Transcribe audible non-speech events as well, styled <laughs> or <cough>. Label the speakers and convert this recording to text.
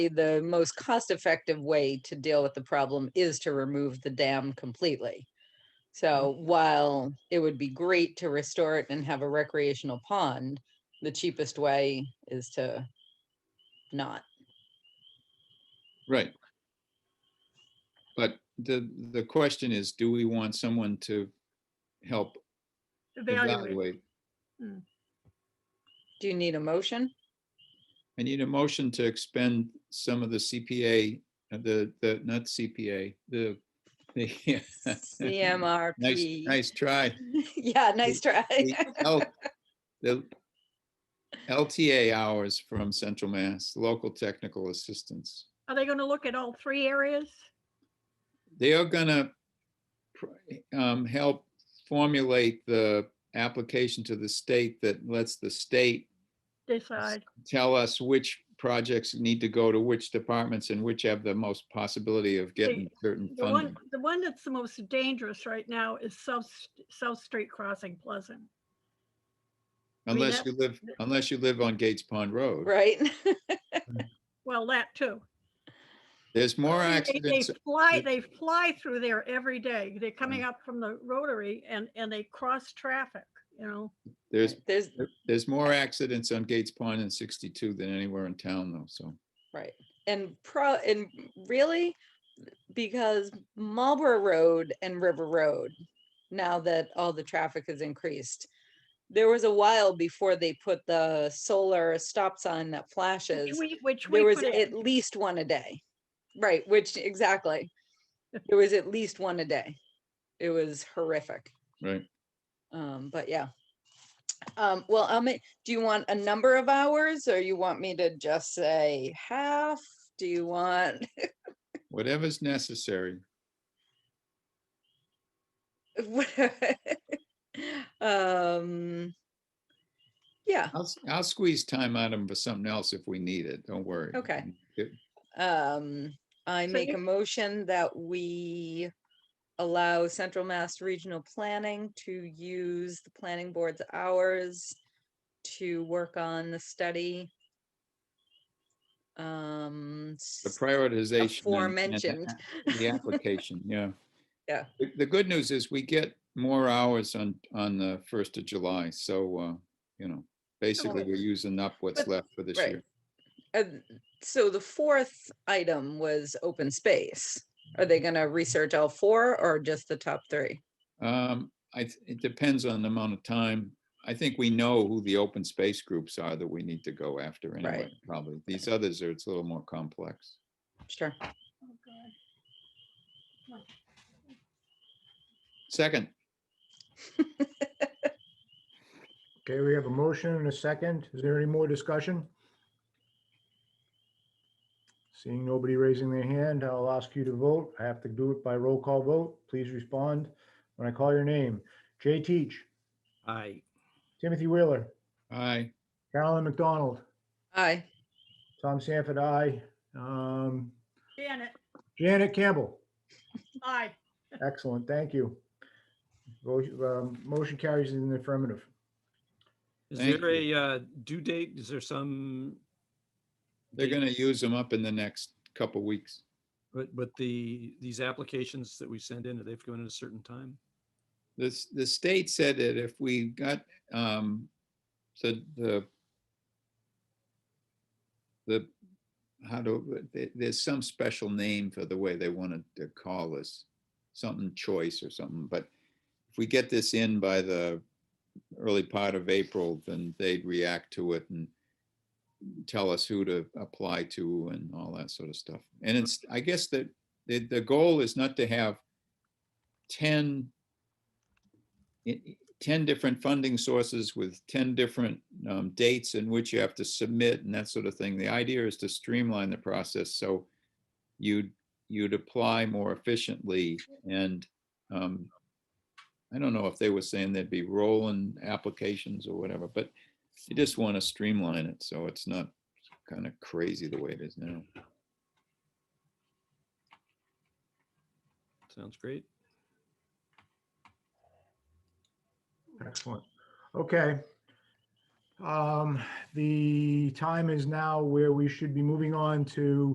Speaker 1: the most cost-effective way to deal with the problem is to remove the dam completely. So
Speaker 2: Mm-hmm.
Speaker 1: while it would be great to restore it and have a recreational pond, the cheapest way is to not.
Speaker 2: Right. But the, the question is, do we want someone to help
Speaker 3: Evaluate.
Speaker 2: evaluate?
Speaker 1: Do you need a
Speaker 2: <laughs>
Speaker 1: motion?
Speaker 2: I need a motion to expend some of the CPA, uh, the, the, not CPA, the, the. <laughs> Nice,
Speaker 1: CMRP.
Speaker 2: nice try.
Speaker 1: <laughs> Yeah, nice try.
Speaker 2: The L- the LTA hours from Central Mass, local technical assistance.
Speaker 3: Are they gonna look at all three areas?
Speaker 2: They are gonna pr- um, help formulate the application to the state that lets the state
Speaker 3: Decide.
Speaker 2: tell us which projects need to go to which departments and which have the most possibility of getting certain
Speaker 3: The one,
Speaker 2: funding.
Speaker 3: the one that's the most dangerous right now is South, St- South Street Crossing Pleasant. I mean,
Speaker 2: Unless
Speaker 3: that-
Speaker 2: you live, unless you live on Gates Pond
Speaker 1: <laughs>
Speaker 2: Road.
Speaker 1: Right?
Speaker 3: Well, that too.
Speaker 2: There's more
Speaker 3: They- They
Speaker 2: accidents.
Speaker 3: fly,
Speaker 2: it- Mm.
Speaker 3: they fly through there every day. They're coming up from the rotary and, and they cross traffic, you know?
Speaker 2: There's,
Speaker 1: <laughs> There's,
Speaker 2: there's more accidents on Gates Pond and 62 than anywhere in town though, so.
Speaker 1: Right. And pro and really because Marlborough Road and River Road, now that all the traffic has increased, there was a while before they put the solar stop sign that
Speaker 3: Which
Speaker 1: flashes.
Speaker 3: we, which we
Speaker 1: There was
Speaker 3: put in.
Speaker 1: at least one a day. Right, which exactly.
Speaker 3: <laughs>
Speaker 1: There was at least one a day. It was horrific.
Speaker 2: Right.
Speaker 1: Um, but yeah. Um, well, I'll make, do you want a number of hours or you want me to just say half? Do you want, <laughs>
Speaker 2: Whatever's necessary.
Speaker 1: what- um, yeah,
Speaker 2: I'll, s- I'll squeeze time out of 'em for something else if we need it. Don't worry.
Speaker 1: Okay.
Speaker 2: Good.
Speaker 1: um, I
Speaker 3: So
Speaker 1: make
Speaker 3: you-
Speaker 1: a motion that we allow Central Mass Regional Planning to use the planning board's hours to work on the study. Um,
Speaker 2: The prioritization. and- and the
Speaker 1: aforementioned.
Speaker 2: The application, yeah.
Speaker 1: <laughs> Yeah.
Speaker 2: The, the good news is we get more hours on, on the first of July, so, uh, you know, basically we're using up what's
Speaker 1: But-
Speaker 2: left for this
Speaker 1: right.
Speaker 2: year.
Speaker 1: And Uh, so the fourth item was open space. Are they gonna research all four or just the top three?
Speaker 2: Um, I, th- it depends on the amount of time. I think we know who the open space groups are that we need to go after anyway, probably. These others are, it's a little more complex.
Speaker 1: Sure.
Speaker 3: Oh, God.
Speaker 2: Second,
Speaker 4: Okay, we have a motion and a second. Is there any more discussion? Seeing nobody raising their hand, I'll ask you to vote. I have to do it by roll call vote. Please respond when I call your name. Jay Teach,
Speaker 5: Aye.
Speaker 4: Timothy Wheeler,
Speaker 2: aye.
Speaker 4: Carolyn McDonald,
Speaker 1: Aye.
Speaker 4: Tom Sanford, aye. Um,
Speaker 3: Janet,
Speaker 4: Janet Campbell.
Speaker 3: aye.
Speaker 4: Excellent, thank you. Vote, um, Motion carries in the affirmative.
Speaker 5: Is
Speaker 2: Thank
Speaker 5: there a uh, due date? Is there some?
Speaker 2: They're
Speaker 5: date
Speaker 2: gonna use them up in the next couple weeks.
Speaker 5: But, but the, these applications that we send in, are they going at a certain time?
Speaker 2: This, the state said that if we got, um, the, the the, how do, there- there's some special name for the way they wanted to call this, something choice or something, but if we get this in by the early part of April, then they'd react to it and tell us who to apply to and all that sort of stuff. And it's, I guess that the, the goal is not to have 10 i- i- 10 different funding sources with 10 different um, dates in which you have to submit and that sort of thing. The idea is to streamline the process so you'd, you'd apply more efficiently and um, I don't know if they were saying there'd be rolling applications or whatever, but you just want to streamline it so it's not kind of crazy the way it is now.
Speaker 5: Sounds great.
Speaker 4: Excellent. Okay. Um, The time is now where we should be moving on to